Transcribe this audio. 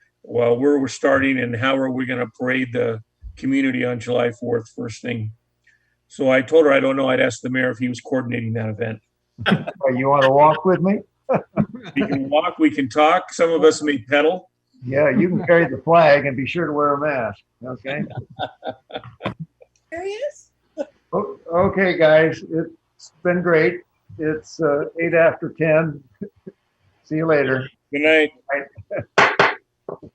well, where we're starting and how are we going to parade the community on July 4th, first thing. So I told her I don't know. I'd ask the mayor if he was coordinating that event. Well, You want to walk with me? We can walk, we can talk. Some of us may pedal. Yeah, you can carry the flag and be sure to wear a mask, okay? There he is. O- Okay, guys, it's been great. It's uh, eight after 10. See you later. Good night.